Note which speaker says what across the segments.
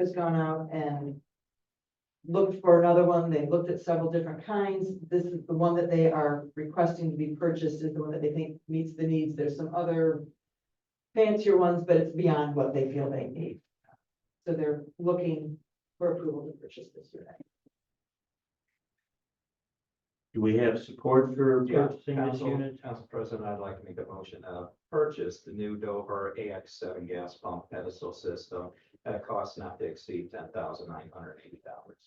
Speaker 1: has gone out and looked for another one. They looked at several different kinds. This is the one that they are requesting to be purchased is the one that they think meets the needs. There's some other fancier ones, but it's beyond what they feel they need. So they're looking for approval to purchase this unit.
Speaker 2: Do we have support for
Speaker 3: Yeah,
Speaker 2: purchasing this
Speaker 3: Council,
Speaker 2: unit?
Speaker 3: Council President, I'd like to make a motion to purchase the new Dover AX seven gas pump pedestal system at a cost not to exceed ten thousand nine hundred eighty dollars.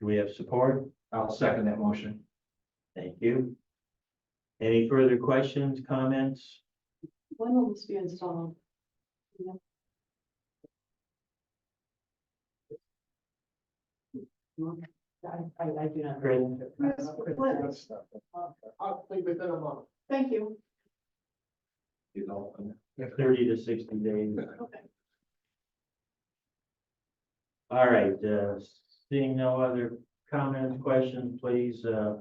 Speaker 2: Do we have support?
Speaker 3: I'll second that motion.
Speaker 2: Thank you. Any further questions, comments?
Speaker 1: When will this be installed? I, I, I do not.
Speaker 4: Yes, please.
Speaker 1: Hopefully within a month. Thank you.
Speaker 3: You know, and
Speaker 2: Thirty to sixty days.
Speaker 1: Okay.
Speaker 2: All right, uh, seeing no other comments, questions, please, uh,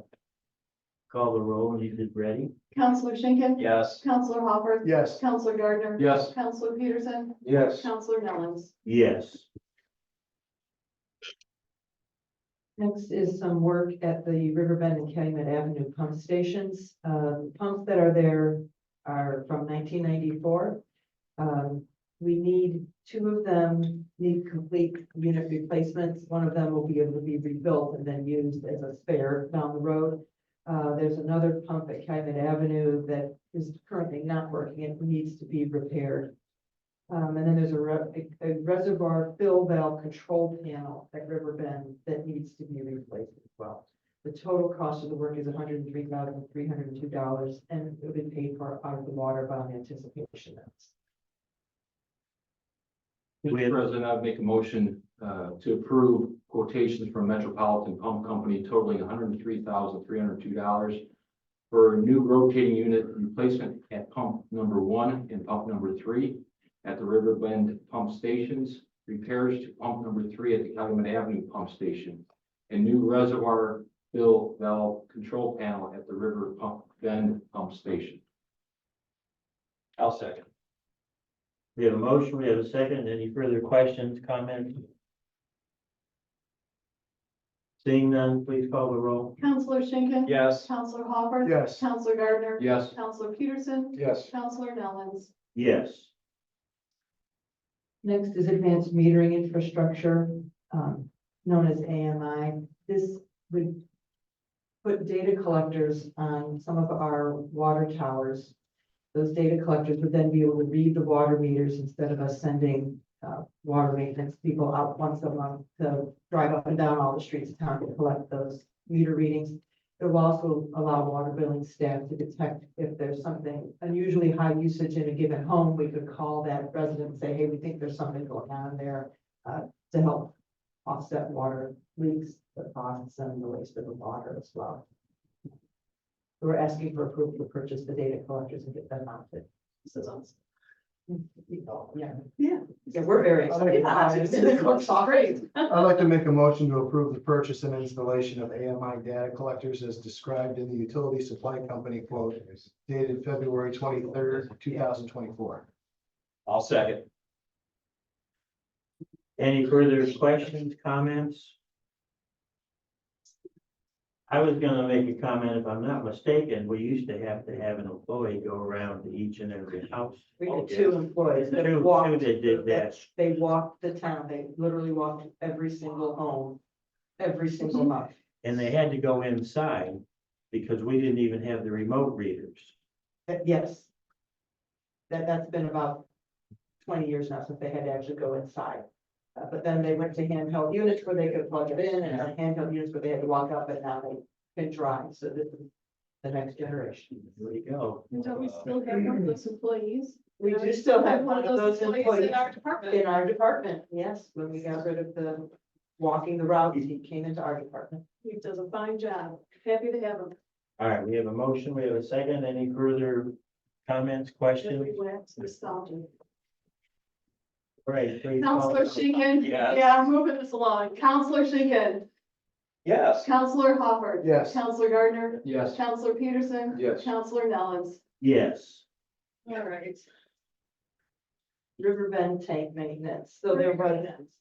Speaker 2: call the roll when you get ready.
Speaker 4: Counselor Schinkin.
Speaker 3: Yes.
Speaker 4: Counselor Hopper.
Speaker 5: Yes.
Speaker 4: Counselor Gardner.
Speaker 3: Yes.
Speaker 4: Counselor Peterson.
Speaker 3: Yes.
Speaker 4: Counselor Nellens.
Speaker 2: Yes.
Speaker 1: Next is some work at the Riverbend and Calumet Avenue pump stations. Uh, pumps that are there are from nineteen ninety-four. Um, we need, two of them need complete unit replacements. One of them will be able to be rebuilt and then used as a spare down the road. Uh, there's another pump at Calumet Avenue that is currently not working and needs to be repaired. Um, and then there's a re- a reservoir fill valve control panel at Riverbend that needs to be replaced as well. The total cost of the work is hundred and three thousand, three hundred and two dollars, and it'll be paid for out of the water bond anticipation notes.
Speaker 2: We have-
Speaker 6: Mr. President, I'd make a motion uh, to approve quotations from Metropolitan Pump Company totaling hundred and three thousand, three hundred and two dollars for a new rotating unit replacement at pump number one and pump number three at the Riverbend Pump Stations, repairs to pump number three at the Calumet Avenue Pump Station, and new reservoir fill valve control panel at the River Pump Bend Pump Station.
Speaker 3: I'll second.
Speaker 2: We have a motion, we have a second. Any further questions, comments? Seeing none, please call the roll.
Speaker 4: Counselor Schinkin.
Speaker 3: Yes.
Speaker 4: Counselor Hopper.
Speaker 5: Yes.
Speaker 4: Counselor Gardner.
Speaker 6: Yes.
Speaker 4: Counselor Peterson.
Speaker 5: Yes.
Speaker 4: Counselor Nellens.
Speaker 2: Yes.
Speaker 1: Next is advanced metering infrastructure, um, known as AMI. This would put data collectors on some of our water towers. Those data collectors would then be able to read the water meters instead of us sending, uh, water maintenance people out once a month to drive up and down all the streets of town to collect those meter readings. It will also allow water billing staff to detect if there's something unusually high usage in a given home. We could call that resident and say, hey, we think there's something going on there uh, to help offset water leaks, the costs and the waste of the water as well. We're asking for approval to purchase the data collectors and get them mounted.
Speaker 4: This is awesome.
Speaker 1: Yeah,
Speaker 4: Yeah.
Speaker 1: yeah, we're very excited. about it. It's going so great.
Speaker 5: I'd like to make a motion to approve the purchase and installation of AMI data collectors as described in the utility supply company quote dated February twenty-third, two thousand twenty-four.
Speaker 3: I'll second.
Speaker 2: Any further questions, comments? I was gonna make a comment, if I'm not mistaken, we used to have to have an employee go around to each and every house.
Speaker 1: We
Speaker 3: Oh,
Speaker 1: had
Speaker 3: yes.
Speaker 1: two employees
Speaker 2: Two-
Speaker 1: that
Speaker 2: two
Speaker 1: walked.
Speaker 2: that did that.
Speaker 1: They walked the town. They literally walked every single home, every single month.
Speaker 2: And they had to go inside because we didn't even have the remote readers.
Speaker 1: That- yes. That, that's been about twenty years now since they had to actually go inside. Uh, but then they went to handheld units where they could plug it in and uh, handheld units where they had to walk up and now they can drive. So this is the next generation.
Speaker 2: There you go. Uh,
Speaker 4: Don't we still have one of those employees?
Speaker 1: We do still have one of those employees
Speaker 4: In our department.
Speaker 1: in our department. Yes, when we got rid of the walking the routes, he came into our department.
Speaker 4: He does a fine job. Happy to have him.
Speaker 2: All right, we have a motion, we have a second. Any further comments, questions?
Speaker 4: Everyone's nostalgic.
Speaker 2: All Right. please call
Speaker 4: Counselor
Speaker 2: the roll.
Speaker 4: Schinkin.
Speaker 3: Yes.
Speaker 4: Yeah, I'm moving this along. Counselor Schinkin.
Speaker 3: Yes.
Speaker 4: Counselor Hopper.
Speaker 5: Yes.
Speaker 4: Counselor Gardner.
Speaker 6: Yes.
Speaker 4: Counselor Peterson.
Speaker 6: Yes.
Speaker 4: Counselor Nellens.
Speaker 2: Yes.
Speaker 4: All right.
Speaker 1: Riverbend tank maintenance. So there was